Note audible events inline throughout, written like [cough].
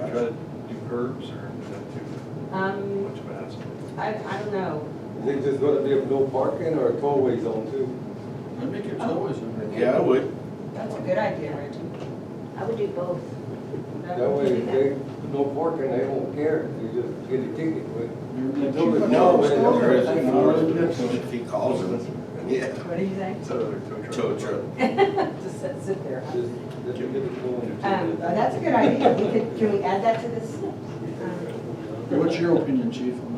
gotta do curbs or is that too Um, much of a hassle? I, I don't know. Is it just gonna be a no parking or a tollway zone too? I'd make it always in there. Yeah, I would. That's a good idea, Reggie. I would do both. That That way, would be if good. they, no parking, they don't care, you just get a ticket, but. No, No, there I isn't, know. or if he calls him, yeah. What do you [laughs] think? Is that another tow Tow truck? truck. Just sit, sit there. Just, just get it going. Um, that's a good idea. We could, can we add that to this? What's your opinion, chief, on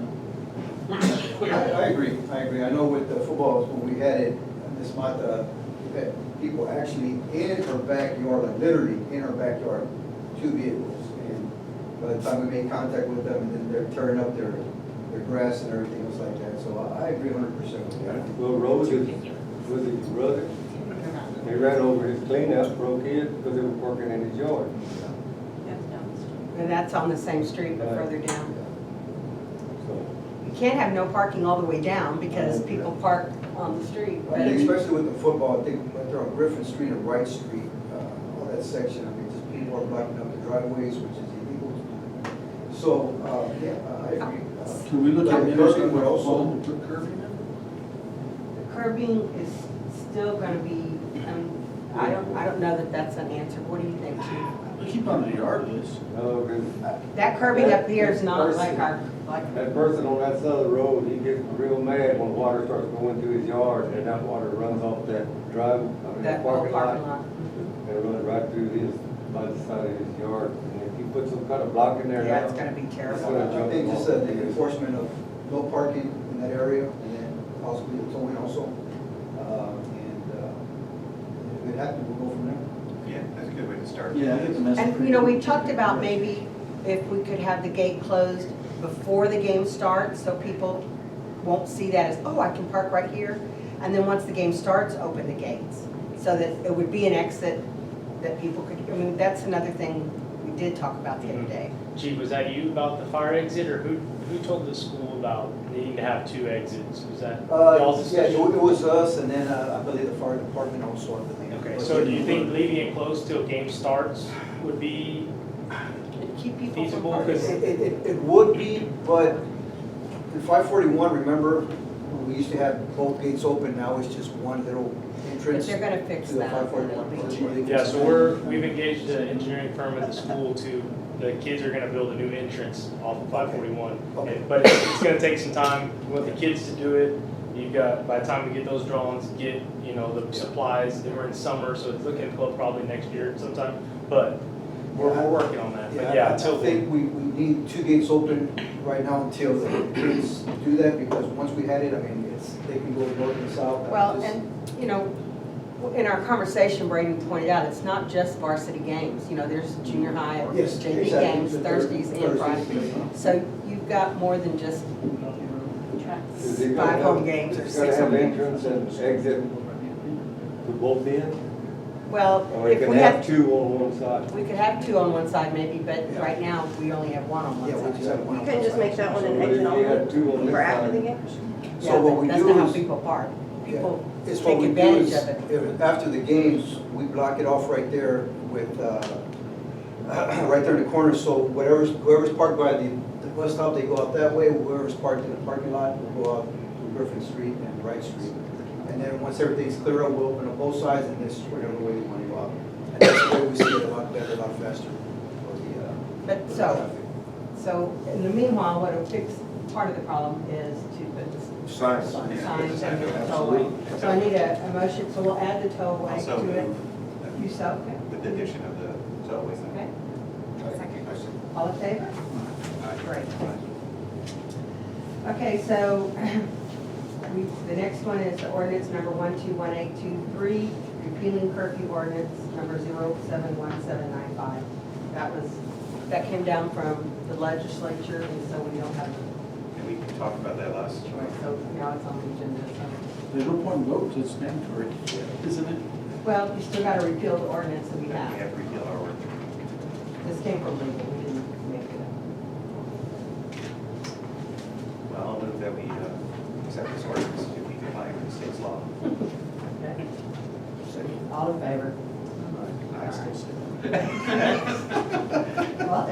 I, I agree, I agree. I know with the footballs, when we had it, Miss Mata, we uh, had people actually in her backyard, like literally in her backyard, two vehicles. And by the time we made contact with them, and then they're tearing up their, their grass and everything else like that. So I I agree hundred percent with that. Well, Rose is, was his brother, they ran over his cleanup, broke it, because they were parking in his yard. And that's on the same street, but Right. further down. So, You can't have no parking all the way down because Okay. people park on the street. I but- mean, Especially with the football, I think, right there on Griffin Street and Wright Street, uh, all that section, I mean, just people are blocking up the driveways, which is illegal. So, uh, yeah, I agree. that? Uh, Can we look at Yeah, interstate curbing would also- also put curbing in? The Curbing is still gonna be, um, I don't, I don't know that that's an answer. What do you think, Chief? We keep on the yard list. no, 'cause That curbing up here is not like our, like, that person on that side of the road, he gets real mad when water starts going through his yard, and that water runs off that drive, I mean, that that whole parking parking lot. lot. Mm-hmm. And run it right through his, by the side of his yard, and if you put some kind of block in there now. Yeah, it's gonna be terrible. I think just uh, the enforcement of no parking in that area, and then possibly the towing also. Uh, And uh, if it happens, we'll go from there. Yeah, that's a good way to start. Yeah, I get the message. And, you know, we talked about maybe if we could have the gate closed before the game starts, so people won't see that as, oh, I can park right here. And then once the game starts, open the gates, so that it would be an exit that people could, I mean, that's another thing we did talk about the other day. Gee, was that you about the fire exit, or who, who told the school about needing to have two exits? Was that Uh, y'all's Yeah, it decision? wa- it was us, and then uh, I believe the fire department also, I believe. Okay, so do you think leaving it closed till game starts would be, And keep people from Feasible, parking. It, it, it- it would be, but in five forty-one, remember, we used to have both gates open, now it's just one little But entrance. they're gonna fix to the that. and it'll 541. be- yeah, so we're, we've engaged an engineering firm at the school to, the kids are gonna build a new entrance off of five forty-one. Okay. But it's it's gonna take some time, we want the kids to do it, you've got, by the time we get those drawings, get, you know, the supplies, then we're in summer, so it's looking close probably next year sometime, but we're, we're working on that, but I- yeah, I till. think we, we need two gates open right now until the kids do that, because once we had it, I mean, it's, they can go north and south. I Well, just- and, you know, in our conversation, Brady pointed out, it's not just varsity games, you know, there's junior high or Yes, JV exactly. games, The third- Thursdays and Thursdays, Fridays. yeah. So you've got more than just Is it gonna five have- home games or it's gonna six home have games. entrance and exit to both ends? Well, Or if it can we have have, two on one side? we could have two on one side maybe, but Yeah. right now, we only have one on Yeah, we one just side. have one. You couldn't just make that one an So exit if you had two on only this for after side- the game? So Yeah, what but we that's do not how is- people park. Yeah. People It's take what we do advantage is, of it. if- After the games, we block it off right there with, uh, [clears throat] right there in the corner, so whatever's, whoever's parked by the, the bus stop, they go out that way, whoever's parked in the parking lot will go out Griffin Street and Wright Street. And then once everything's clear up, we'll open up both sides and this, whatever way you want to go out. And that's the way we see it a lot better, a lot faster for the, uh. But for the so, traffic. so in the meanwhile, what'll fix part of the problem is to put this Signs. signs and the tollway. So I need a, a motion, so we'll add the tollway Also to it. move You so, okay, with the addition of the tow okay. Second. All in favor? Great. Okay, so [clears throat] we, the next one is the ordinance number 121823, repealing curfew ordinance number 0717995. That was, that came down from the legislature, and so we don't have, And we can talk about that last. right, so now it's on the agenda. so- There's no point in votes, it's mandatory, isn't it? Well, you still got to repeal the ordinance that we We have. have to repeal our ordinance. This came from legal, we didn't make it up. Well, I'll move that we uh, accept this ordinance to be compliant with the state's law. Okay. All in favor? I still say that.